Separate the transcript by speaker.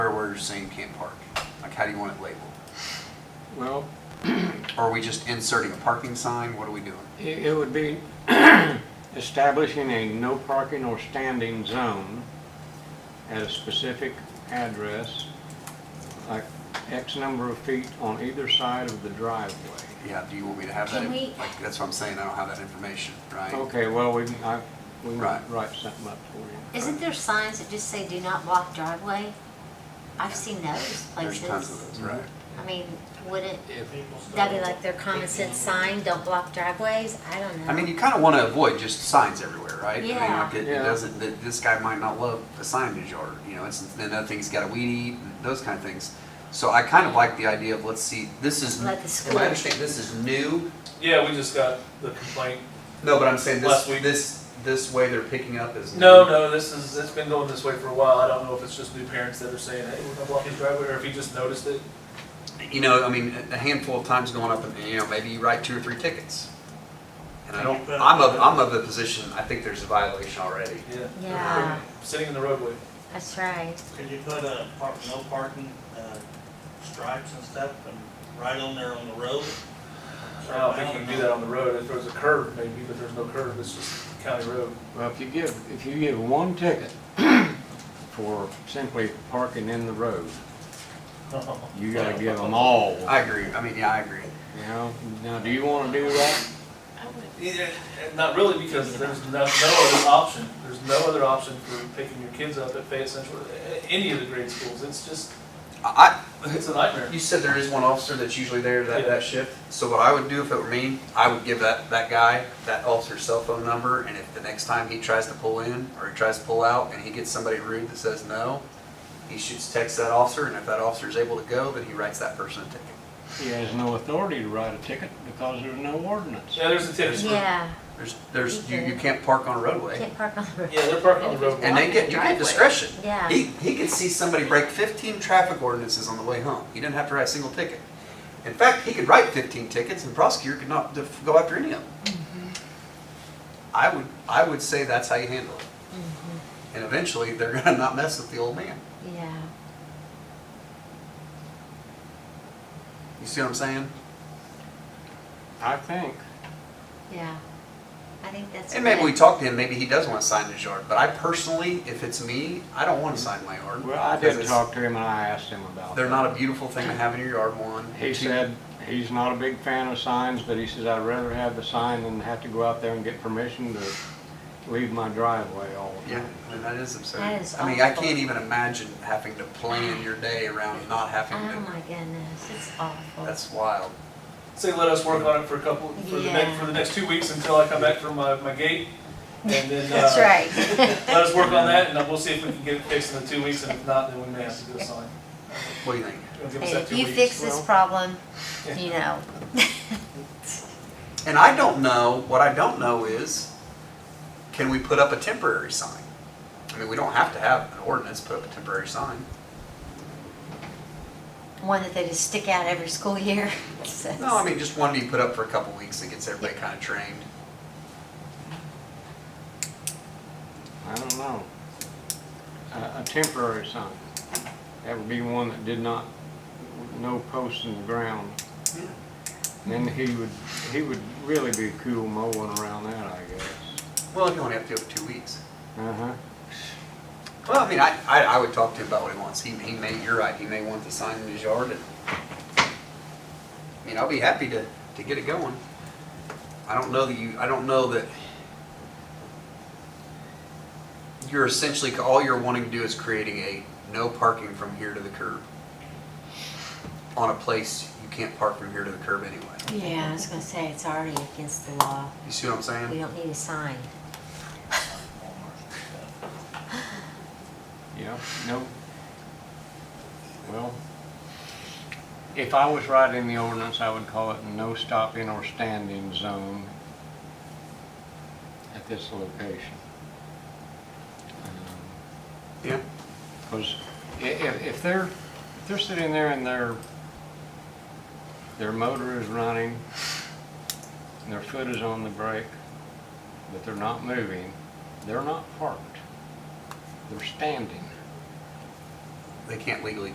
Speaker 1: orders saying can't park? Like, how do you want it labeled?
Speaker 2: Well,
Speaker 1: Are we just inserting a parking sign? What are we doing?
Speaker 2: it, it would be establishing a no parking or standing zone at a specific address, like X number of feet on either side of the driveway.
Speaker 1: Yeah, do you want me to have that?
Speaker 3: Can
Speaker 1: in-
Speaker 3: we-
Speaker 1: Like, that's what I'm saying, I don't have that information, right?
Speaker 2: Okay, well, we, can- I, we
Speaker 1: Right.
Speaker 2: might write something up for you.
Speaker 3: Isn't there signs that just say do not block driveway? I've seen those
Speaker 1: There's tons of those,
Speaker 3: places.
Speaker 1: right?
Speaker 3: I mean, wouldn't
Speaker 2: If,
Speaker 3: that be like their common sense sign, don't block driveways? I don't know.
Speaker 1: I mean, you kind of want to avoid just signs everywhere, right?
Speaker 3: Yeah.
Speaker 1: I mean, like it,
Speaker 2: Yeah.
Speaker 1: it doesn't, that this guy might not love a sign in his yard, you know, it's, then other things got a weed eat, and those kind of things. So I kind of like the idea of, let's see, this is,
Speaker 3: Let the
Speaker 1: am
Speaker 3: school-
Speaker 1: I understanding, this is new?
Speaker 4: Yeah, we just got the complaint.
Speaker 1: No, but I'm saying this,
Speaker 4: Last week.
Speaker 1: this, this way they're picking up is.
Speaker 4: No,
Speaker 1: new.
Speaker 4: no, this is, it's been going this way for a while. I don't know if it's just new parents that are saying, hey, we're gonna block his driveway, or if he just noticed it.
Speaker 1: You know, I mean, a handful of times going up and, you know, maybe you write two or three tickets. And I don't, I'm of, I'm of the position, I think there's a violation already.
Speaker 4: Yeah.
Speaker 3: Yeah.
Speaker 4: Sitting in the roadway.
Speaker 3: That's right.
Speaker 5: Could you put a park, no parking, uh, stripes and stuff and right on there on the road?
Speaker 4: I don't think you can do that on the road. If there was a curb, maybe, but there's no curb. It's just county road.
Speaker 2: well, if you give, if you give one ticket for simply parking in the road, you gotta give them
Speaker 1: Uh-huh.
Speaker 2: all,
Speaker 1: I agree, I mean, yeah, I agree.
Speaker 2: you know? Now, do you wanna do that?
Speaker 4: Yeah, Not really, because there's no, no other option. There's no other option for picking your kids up at Fayette Central, a- any of the grade schools. It's just,
Speaker 1: I,
Speaker 4: it's a nightmare.
Speaker 1: You said there is one officer that's usually there that,
Speaker 4: Yeah.
Speaker 1: that shift. So what I would do if it were me, I would give that, that guy, that officer's cell phone number, and if the next time he tries to pull in or he tries to pull out and he gets somebody rude that says no, he shoots text that officer, and if that officer is able to go, then he writes that person a ticket.
Speaker 2: He has no authority to write a ticket because there's no ordinance.
Speaker 4: Yeah, there's a tennis court.
Speaker 3: Yeah,
Speaker 1: There's, there's, you, you can't park on a roadway.
Speaker 3: can't park on the road.
Speaker 4: Yeah, they're parking on the roadway.
Speaker 1: And they get, you get discretion.
Speaker 3: Yeah.
Speaker 1: He, he could see somebody break fifteen traffic ordinances on the way home. He didn't have to write a single ticket. In fact, he could write fifteen tickets and prosecutor could not def- go after any of them.
Speaker 3: Mm-hmm.
Speaker 1: I would, I would say that's how you handle it. And eventually, they're gonna not mess with the old man.
Speaker 3: Yeah.
Speaker 1: You see what I'm saying?
Speaker 2: I think,
Speaker 3: Yeah. I think that's.
Speaker 1: And maybe
Speaker 3: good.
Speaker 1: we talk to him, maybe he does want to sign his yard, but I personally, if it's me, I don't
Speaker 3: Mm-hmm.
Speaker 1: want to sign my yard.
Speaker 2: well, I
Speaker 1: because
Speaker 2: did
Speaker 1: it's-
Speaker 2: talk to him and I asked him about
Speaker 1: They're
Speaker 2: that.
Speaker 1: not a beautiful thing to have in your yard, one.
Speaker 2: He
Speaker 1: Two,
Speaker 2: said, he's not a big fan of signs, but he says, I'd rather have the sign than have to go out there and get permission to leave my driveway all the
Speaker 1: Yeah,
Speaker 2: time.
Speaker 1: I mean, that is absurd.
Speaker 3: That is
Speaker 1: I mean, I
Speaker 3: awful.
Speaker 1: can't even imagine having to plan your day around not having
Speaker 3: Oh
Speaker 1: to.
Speaker 3: my goodness, it's awful.
Speaker 1: That's wild.
Speaker 4: Say, let us work on it for a couple, for the
Speaker 3: Yeah.
Speaker 4: next, for the next two weeks until I come back from my, my gate. And then,
Speaker 3: That's right.
Speaker 4: uh, let us work on that and then we'll see if we can get it fixed in the two weeks. And if not, then we may have to do a sign.
Speaker 1: What do you think?
Speaker 4: It'll give us
Speaker 3: And
Speaker 4: that
Speaker 3: if
Speaker 4: two
Speaker 3: you
Speaker 4: weeks.
Speaker 3: fix this
Speaker 2: well.
Speaker 3: problem, you know.
Speaker 1: And I don't know, what I don't know is, can we put up a temporary sign? I mean, we don't have to have an ordinance, put up a temporary sign.
Speaker 3: One that they just stick out every school year.
Speaker 1: No, I mean, just one you put up for a couple weeks that gets everybody kind of trained.
Speaker 2: I don't know. A, a temporary sign. That would be one that did not, no posts in the ground.
Speaker 1: Yeah.
Speaker 2: Then he would, he would really be cool mowing around that, I guess.
Speaker 1: Well, if you only have to do it for two weeks.
Speaker 2: Uh-huh.
Speaker 1: Well, I mean, I, I, I would talk to him about what he wants. He, he may, you're right, he may want the sign in his yard and, I mean, I'll be happy to, to get it going. I don't know that you, I don't know that you're essentially, all you're wanting to do is creating a no parking from here to the curb on a place you can't park from here to the curb anyway.
Speaker 3: Yeah, I was gonna say, it's already against the law.
Speaker 1: You see what I'm
Speaker 3: We
Speaker 1: saying?
Speaker 3: don't need a sign.
Speaker 2: Yeah, no. Well, if I was writing the ordinance, I would call it no stopping or standing zone at this location. Um,
Speaker 1: Yeah.
Speaker 2: Because if, if they're, if they're sitting there and their, their motor is running, and their foot is on the brake, but they're not moving, they're not parked. They're standing.
Speaker 1: They can't legally